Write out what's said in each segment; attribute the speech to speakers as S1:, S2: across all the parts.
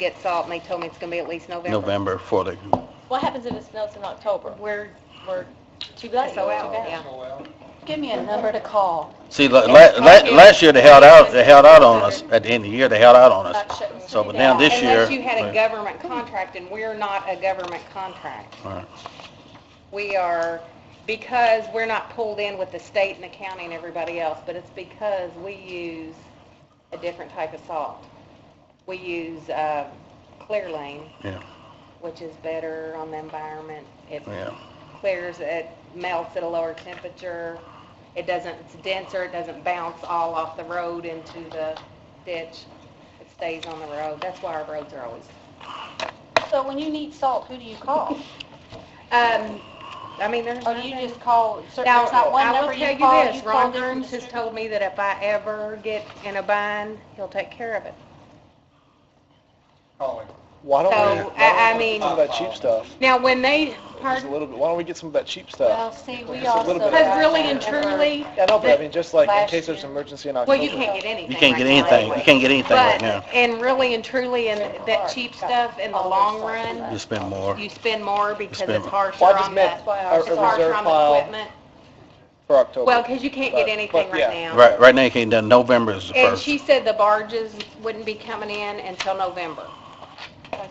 S1: get salt, and they told me it's gonna be at least November.
S2: November for the,
S3: What happens if it snows in October? We're, we're too late, too
S1: So out, yeah.
S3: bad. Give me a number to call.
S2: see, la- la- la- last year they held out, they held out on us, at the end of the year, they held out on
S3: That
S2: us.
S3: shouldn't
S2: So,
S3: be
S2: but now
S3: bad.
S2: this year.
S1: Unless you had a government contract, and we're not a government contract.
S2: Right.
S1: We are, because we're not pulled in with the state and the county and everybody else, but it's because we use a different type of salt. We use uh, Clear Lane,
S2: Yeah,
S1: which is better on the environment. It
S2: yeah,
S1: clears, it melts at a lower temperature. It doesn't, it's denser, it doesn't bounce all off the road into the ditch. It stays on the road. That's why our roads are always
S3: So when you need salt, who do you call?
S1: Um, I mean, there's
S3: Or do Oh, you
S1: nothing-
S3: just call, cer-
S1: Now,
S3: there's not one
S1: I will
S3: number
S1: tell
S3: you call?
S1: this,
S3: you call
S1: Ron
S3: different
S1: Burns has
S3: districts?
S1: told me that if I ever get in a bind, he'll take care of it.
S4: calling.
S5: Why don't we,
S1: So, I, I mean,
S5: some of that cheap stuff?
S1: now, when they,
S5: Just a
S1: pardon,
S5: little bit. Why don't we get some of that cheap
S3: Well,
S5: stuff?
S3: see, we
S5: Just a
S3: also.
S5: little bit.
S1: because really and truly,
S5: Yeah, no, but I mean, just like in
S3: Last
S5: case there's
S3: year.
S5: an emergency in October.
S1: well, you can't get anything
S2: you can't get
S1: right now
S2: anything, you
S1: anyway.
S2: can't get anything right now.
S1: But, and really and truly, and that cheap stuff, in the long run,
S2: You spend more.
S1: you spend more because
S2: spend
S1: it's
S2: more.
S1: harsher
S5: Well, I just
S1: on
S5: meant
S1: the,
S3: a-
S1: it's
S5: a
S1: harsher
S5: reserve
S1: on
S5: pile.
S1: the equipment.
S5: For October.
S1: Well, because you can't get
S5: But-
S1: anything
S5: but, yeah.
S1: right now.
S2: Right, right now you can't, done. November is the
S1: And
S2: first.
S1: she said the barges wouldn't be coming in until November.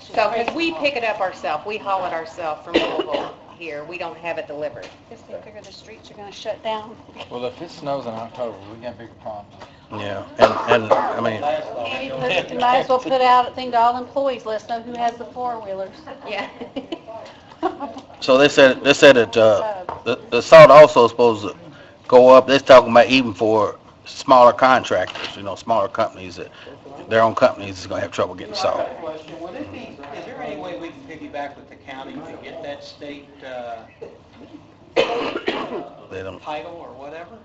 S1: So, because we pick it up ourselves, we haul it ourselves from Louisville here, we don't have it delivered.
S3: Guess they figure the streets are gonna shut down.
S4: Well, if it snows in October, we're gonna have bigger problems.
S2: Yeah, and, and, I mean,
S3: Maybe put- Might as well put out a thing to all employees, let us know who has the four-wheelers.
S1: Yeah.
S2: so they said, they said that, uh, the, the salt also supposed to go up, they're talking about even for smaller contractors, you know, smaller companies, that their own companies is gonna have trouble getting
S6: I've
S2: salt.
S6: got a question. Would it be, is there any way we can piggyback with the county to get that state uh,
S2: They don't,
S6: title or whatever?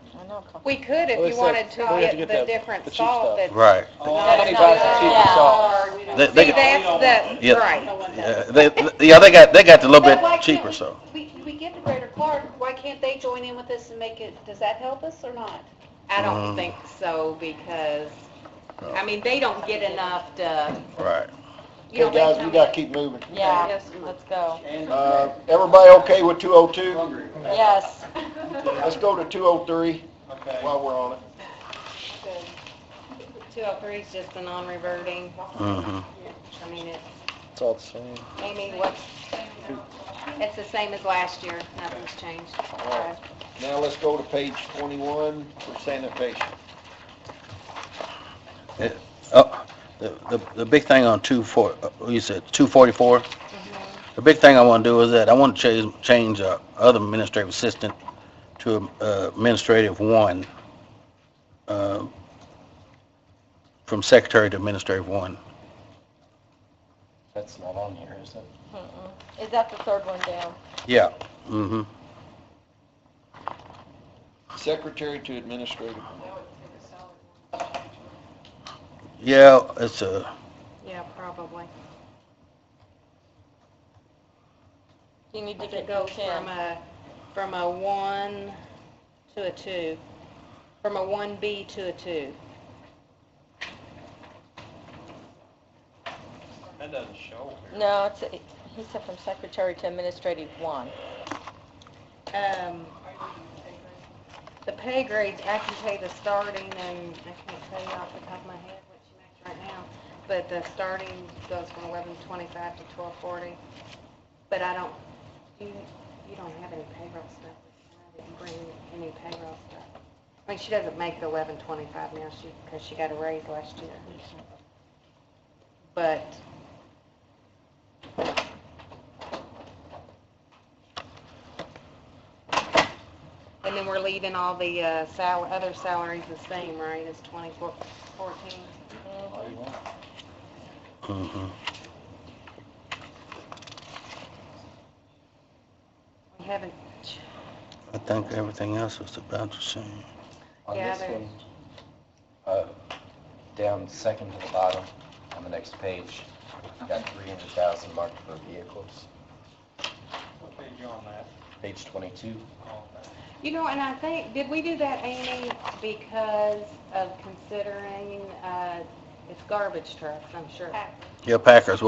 S1: We could
S5: Well,
S1: if you
S5: it's
S1: wanted
S5: like,
S1: to
S5: we have to
S1: get
S5: get
S1: the
S5: the-
S1: different
S5: the cheap
S1: salt
S5: stuff.
S1: that's.
S2: right.
S3: Oh,
S4: Nobody buys the cheapest salt.
S2: They,
S1: See,
S2: they,
S1: that's the,
S2: Yeah.
S1: right.
S2: yeah, they, yeah, they got, they got a little bit cheaper, so.
S3: We, we give to Greater Clark, why can't they join in with this and make it, does that help us or not?
S1: I don't
S7: Uh-huh.
S2: Mm.
S1: think so because, I mean, they don't get enough to,
S2: Right.
S1: you know,
S7: Okay,
S1: they
S7: guys,
S1: come
S7: we
S1: in-
S7: gotta keep moving.
S3: Yeah, let's go.
S7: Uh, everybody okay with 202?
S3: Yes.
S7: Let's go to 203
S6: Okay.
S7: while we're on it.
S1: 203 is just the non-reverting.
S2: hmm
S1: I mean, it's
S5: It's all the same.
S1: Amy, what's, it's the same as last year, nothing's changed.
S7: right. Now let's go to page 21 for sanitation.
S2: Oh, the, the, the big thing on two four, uh, you said two forty-four? The big thing I wanna do is that I wanna change, change, uh, other administrative assistant to, uh, administrative one, uh, from secretary to administrative one.
S4: That's not on here, is it?
S3: Is that the third one down?
S2: Yeah. Mm-hmm.
S7: Secretary to administrative.
S2: Yeah, it's a,
S1: Yeah, probably.
S3: You need
S1: If it goes from a, from a one to a two, from a one B to a two.
S6: That doesn't show.
S3: No, it's, he said from secretary to administrative one.
S1: Um, the pay grades, I can tell you the starting and I can't tell you off the top of my head what she makes right now, but the starting goes from eleven twenty-five to twelve forty. But I don't, you, you don't have any payroll stuff. I didn't bring any payroll stuff. I mean, she doesn't make the eleven twenty-five now, she, because she got a raise last year. But And then we're leaving all the uh, sal, other salaries the same, right, as twenty-four, fourteen?
S2: mm-hmm.
S1: We haven't, ch-
S2: I think everything else is about the same.
S4: On
S1: Yeah,
S4: this
S1: there's-
S4: one, uh, down second to the bottom, on the next page, got three hundred thousand marked for vehicles,
S6: What page you on that? Oh,
S4: page twenty-two.
S1: you know, and I think, did we do that, Amy, because of considering, uh,
S8: It's garbage trucks, I'm sure.
S9: Pack.
S1: Yeah, Packers,